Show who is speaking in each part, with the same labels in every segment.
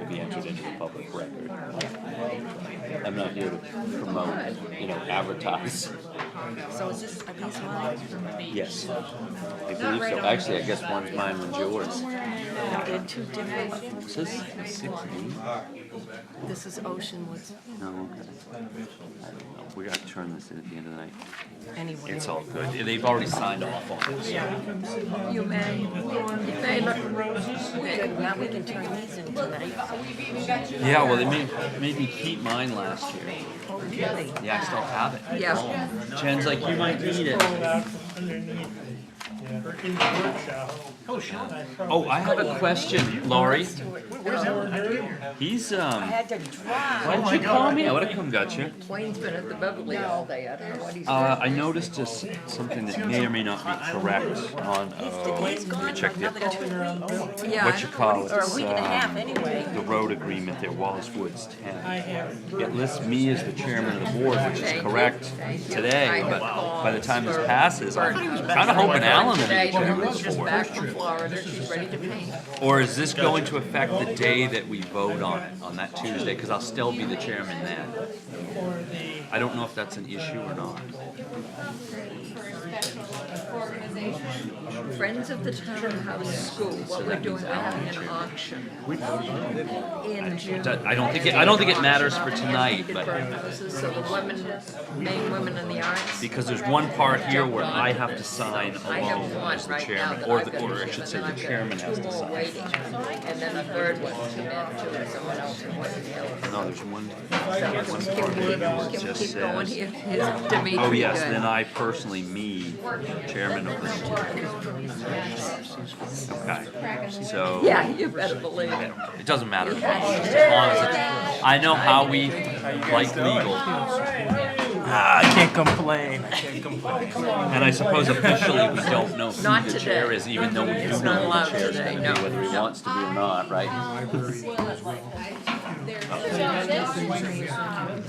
Speaker 1: be entered into the public record. I'm not here to promote, you know, advertise.
Speaker 2: So is this, are these mine?
Speaker 1: Yes. I believe so. Actually, I guess one's mine, one's yours.
Speaker 2: I did two different,
Speaker 1: Is this six D?
Speaker 2: this is Oceanwoods,
Speaker 1: No, Oh, okay. I don't know. We gotta turn this in at the end of the night.
Speaker 2: anyway.
Speaker 1: It's all good. They've already signed off on it.
Speaker 2: You may, they look, good, now we can turn these in tonight.
Speaker 1: Yeah, well, they made, made me keep mine last year.
Speaker 2: Oh, really?
Speaker 1: Yeah, I still have it.
Speaker 2: Yeah.
Speaker 1: Oh. Jen's like, you might need it.
Speaker 3: Or in the workshop.
Speaker 1: Oh, Oh, I have a question, Laurie.
Speaker 3: Where's Alan Harry?
Speaker 1: He's, um,
Speaker 2: Had to drive.
Speaker 1: why didn't you call me? I would've come got you.
Speaker 2: Wayne's been at the Beverly all day, I don't know what he's
Speaker 1: Uh,
Speaker 2: doing.
Speaker 1: I noticed just something that may or may not be correct on, uh,
Speaker 2: He's gone for
Speaker 1: check the- Oh.
Speaker 2: another two weeks. Yeah,
Speaker 1: What you call it,
Speaker 2: Or a week and a half,
Speaker 1: um,
Speaker 2: anyway.
Speaker 1: the road agreement there, Wallace Woods ten. It lists me as the chairman of the board, which is correct today, but by the time this passes, I'm kinda hoping Alan will be the
Speaker 2: Today,
Speaker 1: chairman
Speaker 2: Lauren's
Speaker 1: of the
Speaker 2: just
Speaker 1: board.
Speaker 2: back from Florida, she's ready to paint.
Speaker 1: Or is this going to affect the day that we vote on it, on that Tuesday, cause I'll still be the chairman then? I don't know if that's an issue or not.
Speaker 2: Friends of the Town House School, what we're doing, we're having an auction. In June.
Speaker 1: That- I don't think, it- I don't think it matters for tonight,
Speaker 2: Painted
Speaker 1: but
Speaker 2: birdhouses, So the women, main women in the arts.
Speaker 1: because there's one part here where I have to sign
Speaker 2: I
Speaker 1: alone
Speaker 2: have one
Speaker 1: as the
Speaker 2: right now
Speaker 1: chairman,
Speaker 2: that
Speaker 1: or
Speaker 2: I've
Speaker 1: the,
Speaker 2: got
Speaker 1: or
Speaker 2: to
Speaker 1: I
Speaker 2: give,
Speaker 1: should
Speaker 2: and
Speaker 1: say,
Speaker 2: then
Speaker 1: the
Speaker 2: I've
Speaker 1: chairman
Speaker 2: got
Speaker 1: has
Speaker 2: two
Speaker 1: to
Speaker 2: more
Speaker 1: sign.
Speaker 2: waiting. And then a third one to add to, and someone else, and somebody else.
Speaker 1: No, there's one,
Speaker 2: So,
Speaker 1: one part here where it
Speaker 2: Can we
Speaker 1: just
Speaker 2: keep going
Speaker 1: says,
Speaker 2: here? Here's Dimitri.
Speaker 1: oh yes,
Speaker 2: Good.
Speaker 1: then I personally, me, chairman of this. Okay, so.
Speaker 2: Yeah, you better believe it.
Speaker 1: It doesn't matter. As long as it's, I know how we like legal.
Speaker 3: Ah, I can't complain. I can't complain.
Speaker 1: And I suppose officially we don't know
Speaker 2: Not
Speaker 1: who the chair
Speaker 2: today.
Speaker 1: is, even though we do know
Speaker 2: not
Speaker 1: who
Speaker 2: allowed
Speaker 1: the chair is
Speaker 2: today,
Speaker 1: gonna
Speaker 2: no.
Speaker 1: be, whether he wants to be or not, right?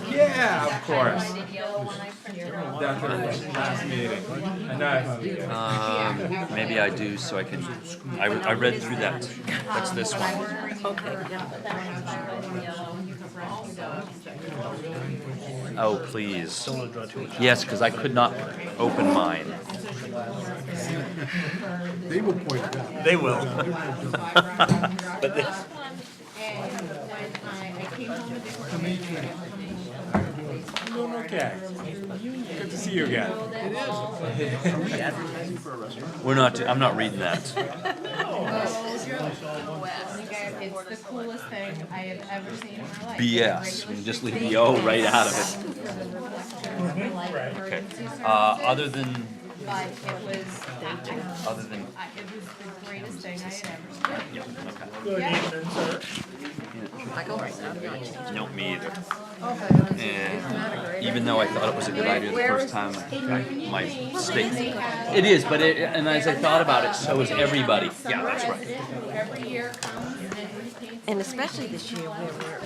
Speaker 4: Yeah, of course. That's the last meeting. Nice.
Speaker 1: Um, maybe I do, so I can, I, I read through that. That's this one. Oh, please. Yes, because I could not open mine.
Speaker 5: They will point it out.
Speaker 3: They will.
Speaker 1: But this,
Speaker 4: Doing okay. Good to see you again.
Speaker 1: we're not, I'm not reading that.
Speaker 6: It's the coolest thing I have ever seen in my life.
Speaker 1: BS. You just leave the O right out of it. Okay. Uh, other than, Uh,
Speaker 6: But it was, I-
Speaker 1: other than,
Speaker 6: I- it was the greatest thing I had ever seen.
Speaker 1: yeah, okay.
Speaker 3: Good evening, sir.
Speaker 2: I go right now.
Speaker 1: No, me either. And even though I thought it was a good idea the first time, I- my state. It is, but it, and as I thought about it, so is everybody. Yeah, that's right.
Speaker 6: President who every year comes and repaints.
Speaker 2: And especially this year where we're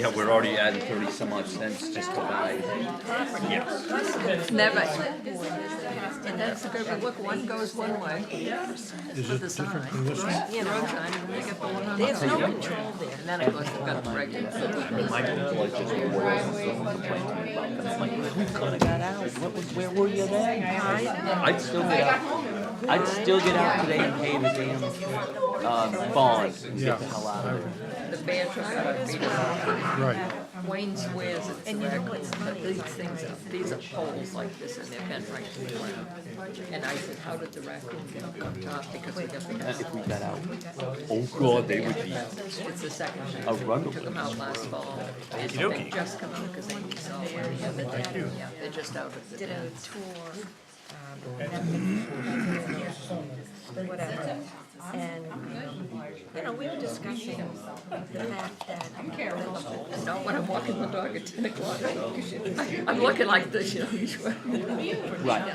Speaker 1: Yeah, we're already adding thirty some odd cents just to buy. Yes.
Speaker 2: Never. And that's the good, but look, one goes one way. For the sign. You know, sign, and they get the one on the There's no control there, and then of course they've got the regular.
Speaker 1: My people like just whirls and someone complaining about them. I'm like, who could have got out? What was, where were you then? I'd still get out. I'd still get out today and pay the damn, uh, bond and get the hell out of there.
Speaker 2: The band truck got beat up.
Speaker 5: Right.
Speaker 2: Wayne swears it's the regulars, but these things, are- these are poles like this, and they're bent right to the ground. And I said, how did the raccoon get up on top? Because we got the,
Speaker 1: If we got out, oh god, they would be
Speaker 2: it's the second time.
Speaker 1: a run.
Speaker 2: Took them out last fall. They just come out because they were solid. Yeah, but they- yeah, They're just out of the den.
Speaker 7: um, whatever. And, you know, we were discussing the fact that.
Speaker 2: Not when I'm walking the dog at ten o'clock. I'm looking like this, you know, each one.
Speaker 1: Right.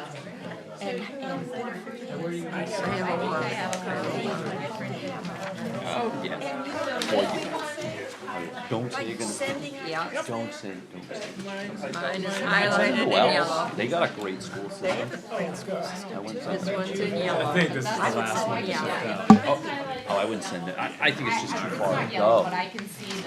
Speaker 2: I have a lot.
Speaker 1: Oh, yeah. Or you- Don't say you're
Speaker 7: Like
Speaker 1: gonna,
Speaker 7: sending out,
Speaker 2: Yeah,
Speaker 1: don't say, don't say.
Speaker 2: mine is highlighted in
Speaker 1: Well, else?
Speaker 2: yellow.
Speaker 1: they got a great school system. I went some-
Speaker 2: This one's in yellow.
Speaker 4: I think this is the last one.
Speaker 2: Yeah.
Speaker 1: Oh, oh, I wouldn't send it. I, I think it's just too far to go.
Speaker 6: But I can see the